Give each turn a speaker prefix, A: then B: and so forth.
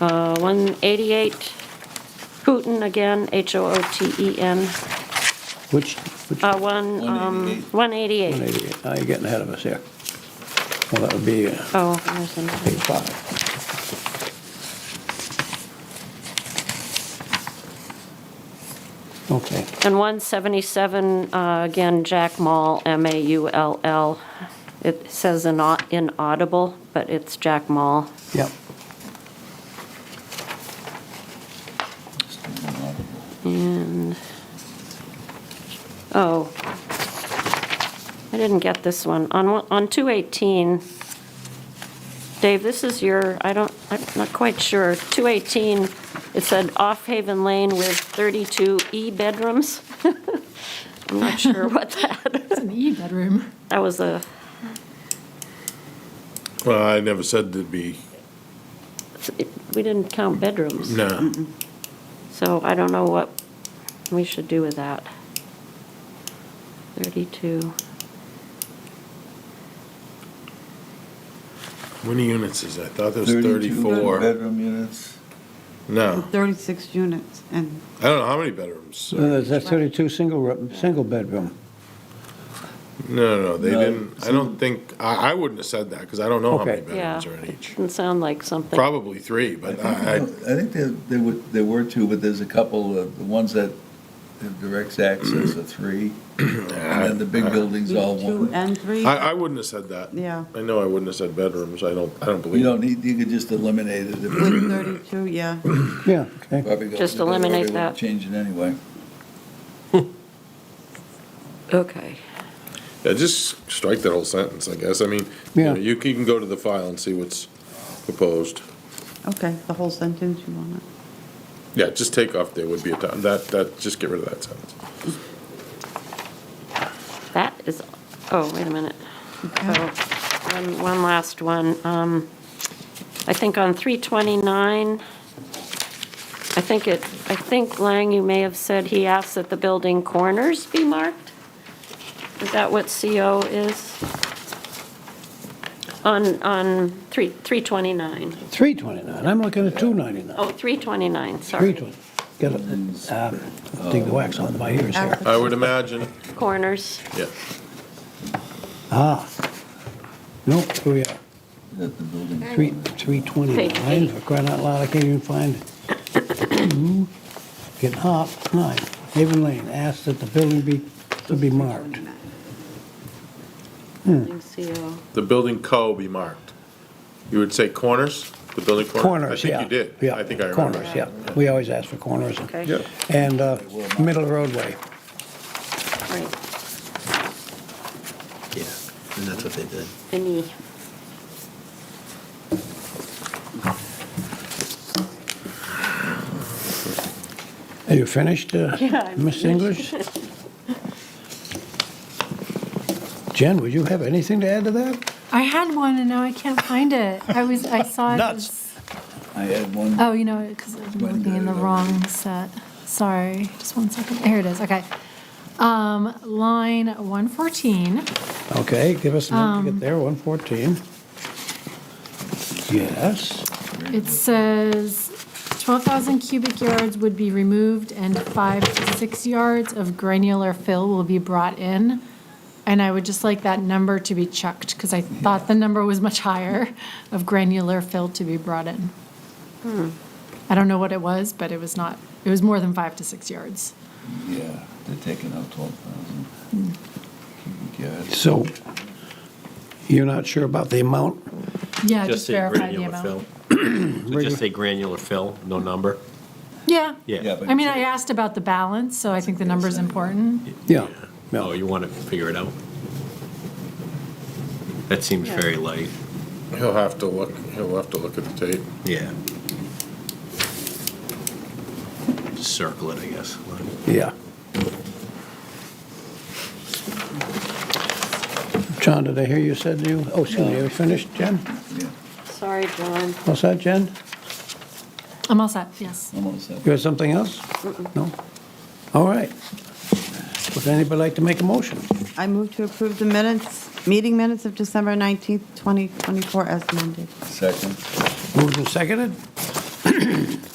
A: Uh, 188 Hooten again, H-O-O-T-E-N,
B: Which, which,
A: E uh, one, um, 188.
B: 188? Now you're getting ahead of us here. Well, that would be uh,
A: Oh, there's another.
B: page five. Okay,
A: And 177, uh, again, Jack Mall, M-A-U-L-L. It says inau- inaudible, but it's Jack Mall.
B: yep.
A: And, oh, I didn't get this one. On, one- on 218, Dave, this is your, I don't, I'm not quite sure. 218, it said Off Haven Lane with 32 E-bedrooms. I'm not sure what that,
C: It's an E bedroom.
A: that was a,
D: Well, I never said there'd be,
A: we didn't count bedrooms.
D: no.
A: So I don't know what we should do with that. 32,
D: How many units is that? I thought there was
E: 32
D: 34.
E: Bedroom units.
D: No,
F: 36 units, and
D: I don't know how many bedrooms. No,
B: So there's that 32 single, ro- single bedroom.
D: no, no, they
E: No.
D: didn't, I don't think, I, I wouldn't have said that, because I don't know how many
B: Okay.
A: Yeah.
D: bedrooms are in each.
A: doesn't sound like something.
D: Probably three, but I, I,
E: I think there, there were, there were two, but there's a couple of, the ones that have direct access are three. And then the big buildings all
F: two
E: one.
F: and three,
D: I, I wouldn't have said that.
F: yeah,
D: I know I wouldn't have said bedrooms, I don't, I don't
E: You
D: believe.
E: don't need, you could just eliminate it. if-
F: with 32, yeah.
B: Yeah, okay.
E: probably go-
A: Just
E: they probably
A: eliminate
E: wouldn't
A: that.
E: Change it anyway.
A: Okay.
D: Yeah, just strike that whole sentence, I guess, I mean, you
B: Yeah.
D: know, you can go to the file and see what's proposed.
F: Okay, the whole sentence you want it.
D: Yeah, just take off there would be a time, that, that, just get rid of that sentence.
A: That is, oh, wait a minute. Oh, One, one last one. Um, I think on 329, I think it, I think Lang, you may have said he asked that the building corners be marked? Is that what CO is? On, on 3, 329.
B: 329, I'm looking at 299.
A: Oh, 329, sorry.
B: 320, get it, uh, dig the wax out of my ears here.
D: I would imagine,
A: Corners.
D: yeah.
B: Ah, nope, here we are.
E: That the building.
B: Three,
A: Page
B: 329,
A: eight.
B: for crying out loud, I can't even find it. Two, Getting hot, nine, Haven Lane, asked that the building be, to be marked.
A: Building CO.
D: the building co be marked. You would say corners, the building
B: Corners,
D: corners?
B: yeah.
D: I think you did.
B: Yeah,
D: I think I remember.
B: Corners, yeah, we always ask for corners.
A: Okay.
D: Yeah.
B: And uh, middle roadway,
A: Right,
G: Yeah, and that's what they did.
A: any,
B: are you finished, uh,
A: Yeah, I'm
B: Miss English? Jen, would you have anything to add to that?
C: I had one and now I can't find it. I was, I saw it.
B: Nuts.
C: was-
E: I had one.
C: Oh, you know, because I'm
E: When
C: looking in the
E: did it
C: wrong set. Sorry, just one second. Here it is, okay. Um, line 114,
B: Okay, give us a minute
A: Um.
B: to get there, 114. Yes,
C: it says 12,000 cubic yards would be removed and five to six yards of granular fill will be brought in. And I would just like that number to be checked because I thought the number was much higher of granular fill to be brought in.
G: Hmm.
C: I don't know what it was, but it was not, it was more than five to six yards.
E: Yeah, they're taking out twelve thousand.
B: so you're not sure about the amount?
C: Yeah, just
G: say
C: verify the
G: granular
C: amount.
G: fill. So Just say granular fill, no number?
C: Yeah.
G: Yeah.
C: I mean, I asked about the balance, so I think the number's important.
B: Yeah. Yeah.
G: Oh, you want to figure it out? That seems
A: Yeah.
G: very light.
D: He'll have to look, he'll have to look at the tape.
G: Yeah. Circle it, I guess.
B: Yeah. John, did I hear you said you, oh, excuse me, you finished, Jen?
A: sorry, John.
B: What's that, Jen?
C: I'm all set, yes.
E: Almost that.
B: You have something else? No? All right. Would anybody like to make a motion?
F: I move to approve the minutes, meeting minutes of December 19th, 2024 as amended.
E: Second.
B: Moved and seconded.